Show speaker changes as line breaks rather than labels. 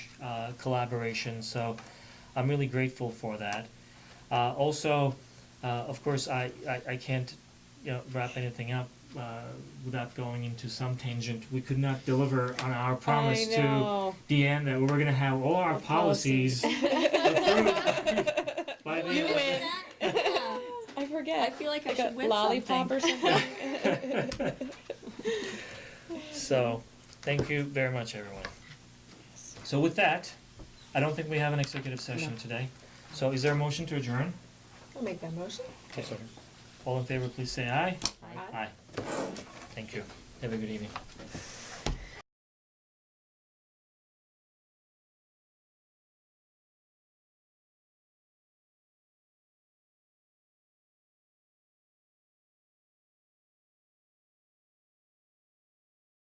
uh, collaboration, so I'm really grateful for that. Uh, also, uh, of course, I, I, I can't, you know, wrap anything up, uh, without going into some tangent. We could not deliver on our promise
I
to
know.
Deanne that we we're gonna have all our
Our policies.
policies approved by the
You
end of-
win.
Yeah.
I
I
forget.
feel like I
Like a
should win
lollipop
something.
or something.
So, thank you very much, everyone. So with that, I don't think we have an executive session today. So is there a motion to adjourn?
I'll make that motion.
All in favor, please say aye.
Aye.
Aye. Thank you. Have a good evening.